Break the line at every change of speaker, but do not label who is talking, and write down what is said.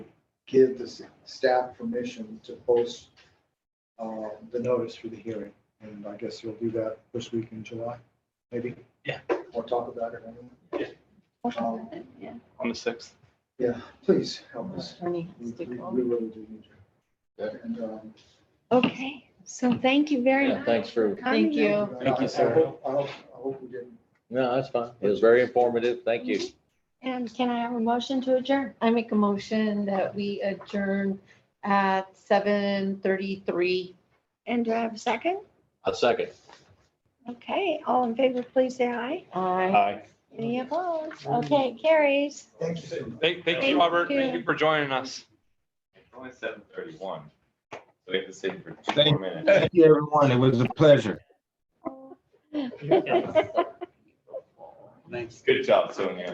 give the s- staff permission to post uh, the notice for the hearing. And I guess you'll do that this week in July, maybe?
Yeah.
We'll talk about it. anyway. Um,
Yeah.
on the sixth.
Yeah, please help us.
Attorney
We we- we
Stickholm.
really do need you.
Yeah.
And, um,
Okay, so thank you very
Yeah,
much.
thanks for,
for
Thank
coming
you.
in.
Thank you,
I- I
sir.
hope- I hope, I hope we didn't
no, that's fine. It was very informative. Thank you.
And can I have a motion to adjourn?
I make a motion that we adjourn at seven thirty-three.
And do I have a second?
A second.
Okay, all in favor, please say aye.
Aye.
Hi.
Any opposed? Okay, carries.
Thank you so much.
Thank, thank
Thank
you, Robert.
you.
Thank you for joining us.
It's only seven thirty-one. So we have to sit for two more minutes.
Thank you, everyone. It was a pleasure.
Good job, Sonia.